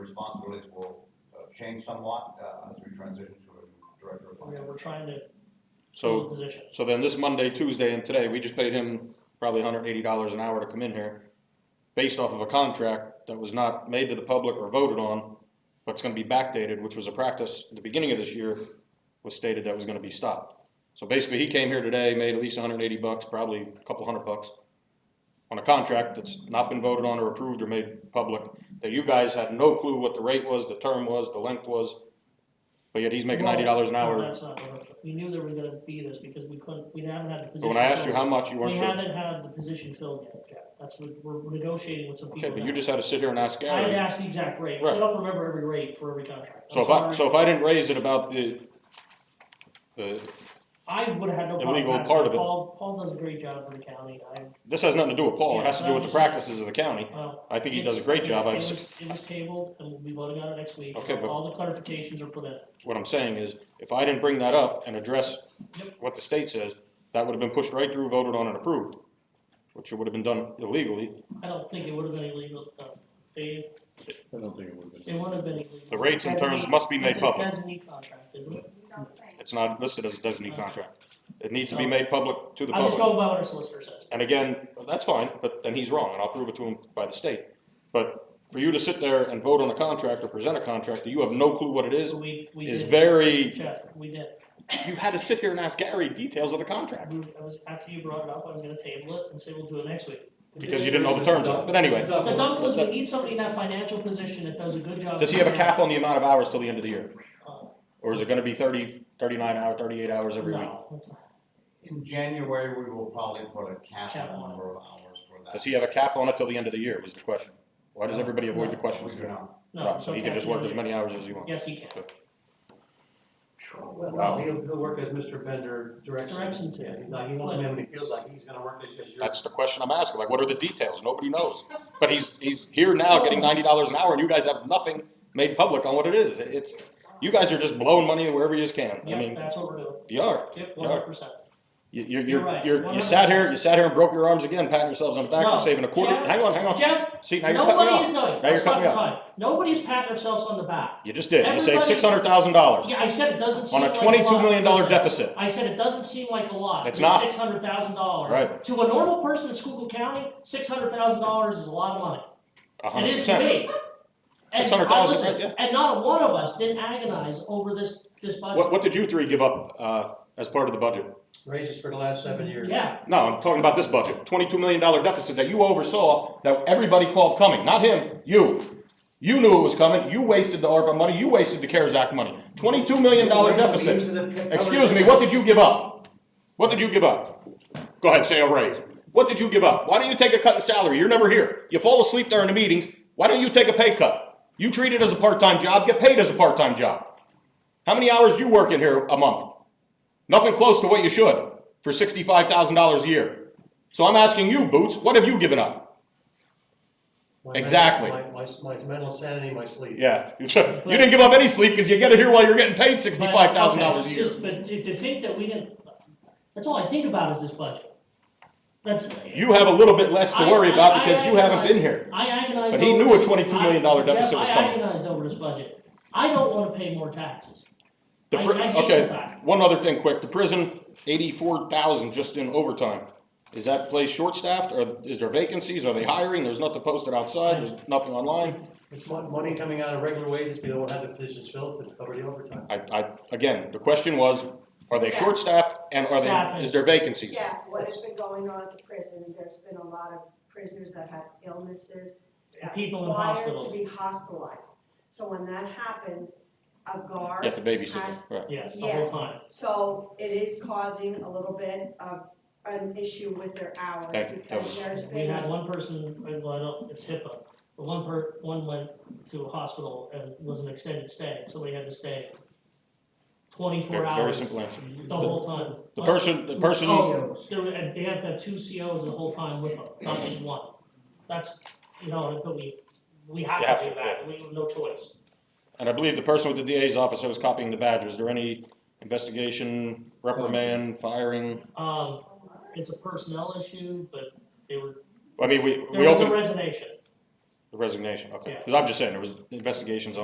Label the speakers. Speaker 1: responsibilities will uh, change somewhat uh, as we transition to a new director of
Speaker 2: I mean,
Speaker 1: finance.
Speaker 2: we're trying to fill the
Speaker 3: So,
Speaker 2: position.
Speaker 3: so then this Monday, Tuesday, and today, we just paid him probably hundred eighty dollars an hour to come in here, based off of a contract that was not made to the public or voted on, but it's gonna be backdated, which was a practice at the beginning of this year, was stated that was gonna be stopped. So basically, he came here today, made at least hundred eighty bucks, probably a couple hundred bucks, on a contract that's not been voted on or approved or made public, that you guys had no clue what the rate was, the term was, the length was, but yet he's making ninety dollars an
Speaker 2: Well,
Speaker 3: hour.
Speaker 2: no, that's not what I'm- We knew there was gonna be this because we couldn't, we haven't had the
Speaker 3: So
Speaker 2: position.
Speaker 3: when I asked you
Speaker 2: filled.
Speaker 3: how much, you
Speaker 2: We
Speaker 3: weren't sure.
Speaker 2: haven't had the position filled yet, Jack. That's what, we're negotiating with some people
Speaker 3: Okay, but you
Speaker 2: now.
Speaker 3: just had to sit here and ask
Speaker 2: I didn't
Speaker 3: Gary.
Speaker 2: ask the exact rate, 'cause I
Speaker 3: Right.
Speaker 2: don't remember every rate for every contract. I'm
Speaker 3: So if I,
Speaker 2: sorry.
Speaker 3: so if I didn't raise it about the, the,
Speaker 2: I would have had no problem
Speaker 3: illegal
Speaker 2: passing
Speaker 3: part
Speaker 2: it.
Speaker 3: of it.
Speaker 2: Paul, Paul does a great job for the county. I,
Speaker 3: this has nothing to do with Paul, it has to do with the practices of the county.
Speaker 2: well,
Speaker 3: I think he does a great job,
Speaker 2: It
Speaker 3: I
Speaker 2: was,
Speaker 3: was,
Speaker 2: it was tabled, and we'll be voting on it next week.
Speaker 3: Okay, but-
Speaker 2: All the clarifications are put in.
Speaker 3: what I'm saying is, if I didn't bring that up and address
Speaker 2: Yep.
Speaker 3: what the state says, that would have been pushed right through, voted on and approved, which would have been done illegally.
Speaker 2: I don't think it would have been illegal, uh, Dave,
Speaker 4: I don't think it would have
Speaker 2: it
Speaker 4: been.
Speaker 2: would have been illegal.
Speaker 3: The rates and terms
Speaker 2: Designee-
Speaker 3: must be made
Speaker 2: it's a
Speaker 3: public.
Speaker 2: designee contract, isn't it?
Speaker 3: It's not listed as a designee contract. It needs to be made public to the
Speaker 2: I'm just
Speaker 3: public.
Speaker 2: going by what our solicitor says.
Speaker 3: And again, that's fine, but then he's wrong, and I'll prove it to him by the state. But for you to sit there and vote on a contract or present a contract that you have no clue what it is,
Speaker 2: So we, we
Speaker 3: is
Speaker 2: did,
Speaker 3: very,
Speaker 2: Jeff, we did.
Speaker 3: you had to sit here and ask Gary details of the contract,
Speaker 2: We- I was, after you brought it up, I was gonna table it and say we'll do it next week.
Speaker 3: because you didn't know the terms of it, but anyway.
Speaker 2: The dunk was, we
Speaker 3: That-
Speaker 2: need somebody in that financial position that does a good job.
Speaker 3: Does he have a cap on the amount of hours till the end of the year?
Speaker 2: Uh,
Speaker 3: Or is it gonna be thirty, thirty-nine hours, thirty-eight hours every week?
Speaker 2: No, it's not.
Speaker 1: In January, we will probably put a cap
Speaker 2: Cap.
Speaker 1: on the number of hours for that.
Speaker 3: Does he have a cap on it till the end of the year, was the question. Why does everybody avoid the
Speaker 1: We
Speaker 3: questions?
Speaker 1: do not.
Speaker 2: no.
Speaker 3: Right, So
Speaker 2: it's
Speaker 3: he can
Speaker 2: okay.
Speaker 3: just work as many hours as he wants.
Speaker 2: Yes, he can.
Speaker 5: Well,
Speaker 3: Wow.
Speaker 5: no, he'll, he'll work as Mr. Bender directs.
Speaker 2: Directs him to.
Speaker 5: Yeah, No, he won't come in when he feels like he's gonna work because you're.
Speaker 3: That's the question I'm asking, like, what are the details? Nobody knows. But he's, he's here now getting ninety dollars an hour, and you guys have nothing made public on what it is. It's, you guys are just blowing money wherever you just can. I
Speaker 2: Yep,
Speaker 3: mean,
Speaker 2: that's what we're doing.
Speaker 3: you are.
Speaker 2: Yep,
Speaker 3: Yeah.
Speaker 2: one hundred percent.
Speaker 3: You, you're,
Speaker 2: You're
Speaker 3: you're,
Speaker 2: right.
Speaker 3: you're, you sat here, you sat here and broke your arms again, patting yourselves on the back
Speaker 2: No,
Speaker 3: for saving a quarter.
Speaker 2: Jeff-
Speaker 3: Hang on, hang on.
Speaker 2: Jeff,
Speaker 3: See, now you're
Speaker 2: nobody is,
Speaker 3: cutting me off.
Speaker 2: no,
Speaker 3: you're
Speaker 2: that's not
Speaker 3: cutting me
Speaker 2: the
Speaker 3: off.
Speaker 2: time. Nobody's patting themselves on the back.
Speaker 3: You just did. You saved
Speaker 2: Everybody-
Speaker 3: six hundred thousand dollars
Speaker 2: Yeah, I said it doesn't seem
Speaker 3: on
Speaker 2: like a
Speaker 3: a
Speaker 2: lot.
Speaker 3: twenty-two million dollar
Speaker 2: Listen,
Speaker 3: deficit.
Speaker 2: I said it doesn't seem like a lot.
Speaker 3: It's not.
Speaker 2: Six hundred thousand dollars.
Speaker 3: Right.
Speaker 2: To a normal person in Schuylkill County, six hundred thousand dollars is a lot of money.
Speaker 3: A
Speaker 2: It
Speaker 3: hundred
Speaker 2: is to
Speaker 3: percent.
Speaker 2: me. And I
Speaker 3: 600,000,
Speaker 2: listen,
Speaker 3: right, yeah.
Speaker 2: And not a one of us didn't agonize over this, this budget.
Speaker 3: What, what did you three give up, uh, as part of the budget?
Speaker 5: Raises for the last seven years.
Speaker 2: Yeah,
Speaker 3: No, I'm talking about this budget, twenty-two million dollar deficit that you oversaw, that everybody called coming, not him, you. You knew it was coming, you wasted the ARPA money, you wasted the CARES Act money, twenty-two million dollar deficit. Excuse me, what did you give up? What did you give up? Go ahead, say a raise. What did you give up? Why don't you take a cut in salary? You're never here. You fall asleep during the meetings, why don't you take a pay cut? You treat it as a part-time job, get paid as a part-time job. How many hours you work in here a month? Nothing close to what you should for sixty-five thousand dollars a year. So I'm asking you, Boots, what have you given up?
Speaker 5: My men-
Speaker 3: Exactly.
Speaker 5: My, my, my mental sanity, my sleep.
Speaker 3: Yeah, you didn't give up any sleep because you get it here while you're getting paid
Speaker 2: But,
Speaker 3: sixty-five thousand dollars a
Speaker 2: okay,
Speaker 3: year.
Speaker 2: just- But if to think that we didn't, that's all I think about is this budget. That's.
Speaker 3: You have a little bit less to
Speaker 2: I-
Speaker 3: worry
Speaker 2: I-
Speaker 3: about
Speaker 2: I
Speaker 3: because you haven't been
Speaker 2: agonized-
Speaker 3: here.
Speaker 2: I agonized.
Speaker 3: But he
Speaker 2: over
Speaker 3: knew a
Speaker 2: this.
Speaker 3: $22 million
Speaker 2: I-
Speaker 3: deficit
Speaker 2: Jeff,
Speaker 3: was coming.
Speaker 2: I agonized over this budget. I don't wanna pay more taxes.
Speaker 3: The
Speaker 2: I-
Speaker 3: pri-
Speaker 2: I hate the
Speaker 3: okay,
Speaker 2: fact.
Speaker 3: one other thing quick, the prison, eighty-four thousand just in overtime. Is that place short-staffed, or is there vacancies, are they hiring, there's nothing posted outside, there's nothing online?
Speaker 5: It's mon- money coming out of regular wages, we don't have the positions filled to cover the overtime.
Speaker 3: I, I, again, the question was, are they short-staffed, and are
Speaker 2: Staffing.
Speaker 3: they, is there vacancies?
Speaker 6: Yeah, what has been going on at the prison, there's been a lot of prisoners that had illnesses. that
Speaker 2: People in
Speaker 6: required
Speaker 2: hospitals.
Speaker 6: To be hospitalized. So when that happens, a
Speaker 3: You
Speaker 6: guard,
Speaker 3: have to babysit them, right?
Speaker 2: Yes, the
Speaker 6: Yeah.
Speaker 2: whole time.
Speaker 6: so it is causing a little bit of an issue with their hours
Speaker 3: Thank you. That
Speaker 6: because
Speaker 3: was-
Speaker 6: there's
Speaker 2: We had
Speaker 6: been,
Speaker 2: one person, well, I don't, it's HIPAA, but one per, one went to a hospital and was an extended stay, so we had to stay twenty-four
Speaker 3: Very- Very
Speaker 2: hours the
Speaker 3: simple answer.
Speaker 2: whole time.
Speaker 3: The person, the person,
Speaker 2: There were- and they have to have two COs the whole time with them, not just one. That's, you know, but we, we
Speaker 3: You
Speaker 2: have
Speaker 3: have
Speaker 2: to do
Speaker 3: to,
Speaker 2: that, we have no choice.
Speaker 3: and I believe the person with the DA's office that was copying the badge, was there any investigation, reprimand, firing?
Speaker 2: Um, it's a personnel issue, but they were,
Speaker 3: I mean, we,
Speaker 2: there
Speaker 3: we
Speaker 2: was a
Speaker 3: opened,
Speaker 2: resignation.
Speaker 3: The resignation, okay.
Speaker 2: Yeah.
Speaker 3: Because I'm just saying, there was investigations on.